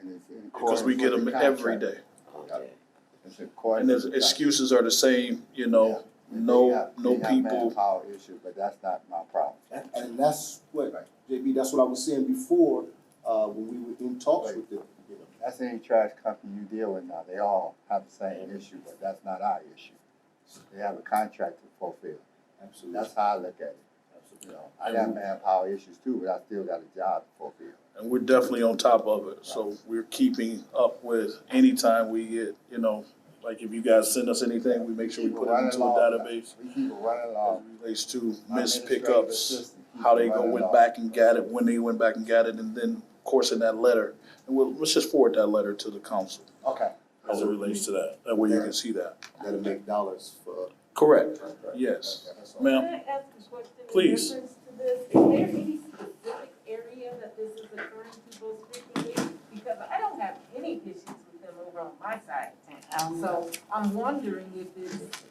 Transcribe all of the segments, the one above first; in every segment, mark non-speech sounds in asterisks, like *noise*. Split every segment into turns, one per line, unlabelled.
and it's in accordance
because we get
with
them
the
every
contract.
day.
Okay.
It's in accordance
And the
with the contract.
excuses are the same, you know,
They
no,
have-
no
they have
people.
manpower issue, but that's not my problem.
And, and that's what, JB, that's what I was saying before, uh, when we were in talks with them, you know.
That's any trash company you deal with now, they all have the same issue, but that's not our issue. They have a contract to fulfill,
Absolutely.
that's how I look at it, you know, I got manpower issues too, but I still got a job to fulfill.
And we're definitely on top of it, so we're keeping up with anytime we get, you know, like if you guys send us anything, we make sure we put it into a database.
We keep it running
As
along.
it relates to missed
Um, Administrative
pickups,
assistant, keep
how
it
they go
running
went
along.
back and got it, when they went back and got it, and then, of course, in that letter. And we'll, let's just forward that letter to the council
Okay,
as it relates to that, that way you can see that.
Gotta make dollars for.
Correct,
Right, right.
yes.
That's all.
Ma'am,
Can I ask a question in
Please.
reference to this? Is there any specific area that this is occurring to most frequently? Because I don't have any issues with them over on my side. So I'm wondering if it's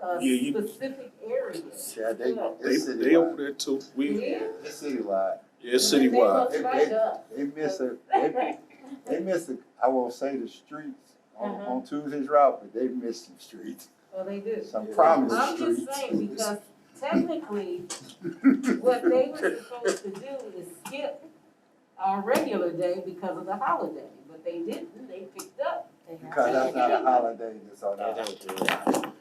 Yeah,
a
you-
specific area.
yeah, they,
they,
it's
they over
citywide,
there too, we,
Yeah.
it's citywide,
it's
They go
citywide.
It-
right
it-
up. *laughs*
they miss a, they They miss the, I won't say the streets on,
Uh-huh.
on Tuesday's route, but they missed some streets,
Well, they do.
some
Yeah.
promised
I'm
streets.
just saying, because technically, what they were supposed to do is skip our regular day because of the holiday, but they didn't, they picked up. They
*laughs* Because
got
that's not a
taken.
holiday, it's on
They
our.
don't do that.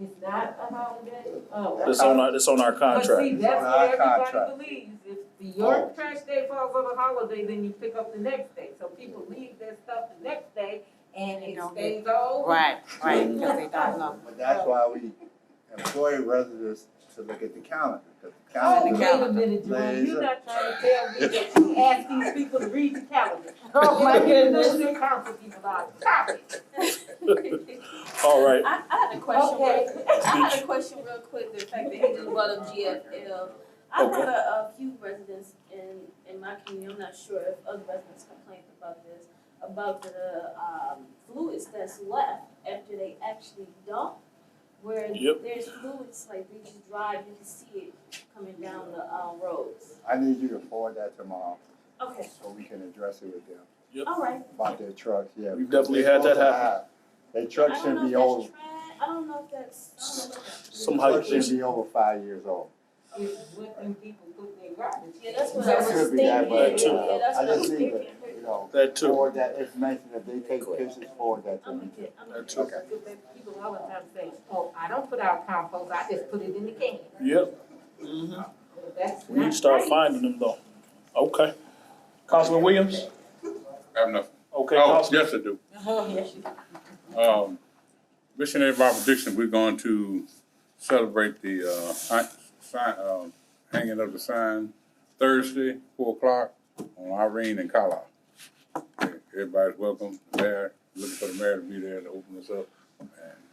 It's not a holiday? Oh.
It's on our, it's on our
But see,
contract.
that's
On our
what everybody
contract.
believes, if the York trash day falls on a holiday, then you pick up the next day, so people leave their stuff the next day, and
They
it
don't
stays all.
Right, right, because they don't know.
But that's why we employ residents to look at the calendar, because the calendar.
Oh, wait a minute, Jerome,
Laser.
you're not trying to tell me that you ask these people to read the calendar. Oh, my goodness, your council people are copies.
All right,
I, I had a question.
Okay.
real- I had a question real quick, the fact that you just brought up GFL. I
Okay.
had a, a few residents in, in my community, I'm not sure if other residents complained about this, about the, um, fluids that's left after they actually dump. Where
Yep.
there's fluids, like they just drive, you can see it coming down the, um, roads.
I need you to forward that tomorrow,
Okay,
so we can address it with them
all right.
about their trucks, yeah.
We've definitely had that happen.
Their trucks shouldn't be over,
I don't know if that's trash, I don't know if that's,
their
somehow,
trucks shouldn't be over five years old.
Is what them people put in their garbage.
yeah, that's what I
That
was
could
thinking,
be that,
way.
yeah,
but,
too.
yeah, that's
I
what I was
just need
thinking.
to, you know,
that too.
forward that information, if they take pictures, forward that to
I'm
me.
gonna get, I'm gonna
That
get.
too.
People all the time say, oh, I don't put out compost, I just put it in the can.
Yep. Mhm.
That's
We need to
not
start
right.
finding them though. Okay. Councilman Williams?
I have nothing.
Okay,
Oh,
Councilman.
yes, I do. Um, missionary Bible Dixon, we're going to celebrate the, uh, hi- sign, um, hanging of the sign Thursday, four o'clock on Irene and Carlisle. Everybody's welcome there, looking for the mayor to be there to open us up. and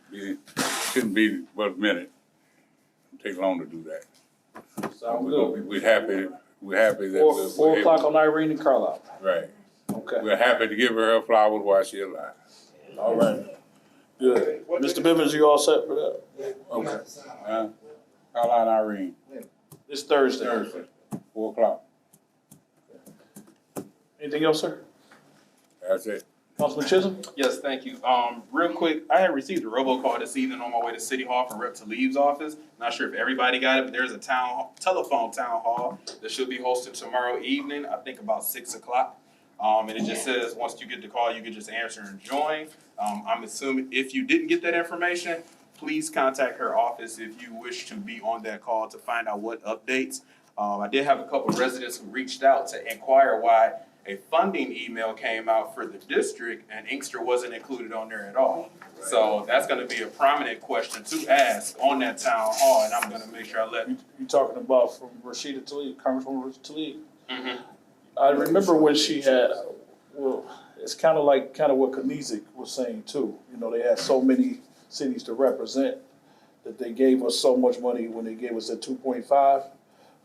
be Shouldn't be but a minute. Take long to do that.
Sound
We're
good.
gonna be- We're happy, we're happy that.
Four,
we're-
four
we're
o'clock
able-
on Irene and Carlisle.
Right.
Okay,
We're happy to give her her flowers while she's alive.
all right. Good. Mr. Bivens, you all set for that? Okay.
Huh? Call out Irene.
It's Thursday.
Thursday, four o'clock.
Anything else, sir?
That's it.
Councilman Chisholm?
Yes, thank you. Um, real quick, I had received a robocall this evening on my way to City Hall from Rep. Talib's office. Not sure if everybody got it, but there's a town, hall- telephone town hall that should be hosted tomorrow evening, I think about six o'clock. Um, and it just says, once you get the call, you can just answer and join. Um, I'm assuming if you didn't get that information, please contact her office if you wish to be on that call to find out what updates. Um, I did have a couple of residents who reached out to inquire why a funding email came out for the district and Inkster wasn't included on there at all. So that's gonna be a prominent question to ask on that town hall, and I'm gonna make sure I let,
You you talking about from Rashida Tlaib, Congresswoman Rashida Tlaib?
Mhm.
I remember when she had, well, it's kind of like, kind of what Knizik was saying too. You know, they had so many cities to represent that they gave us so much money when they gave us the two point five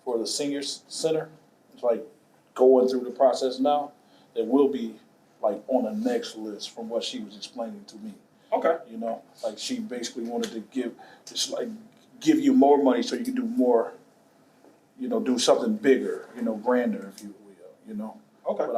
for the seniors center. It's like going through the process now, it will be like on the next list from what she was explaining to me.
okay,
You know, like she basically wanted to give, just like give you more money so you can do more, you know, do something bigger, you know, grander if you will, you know?
okay.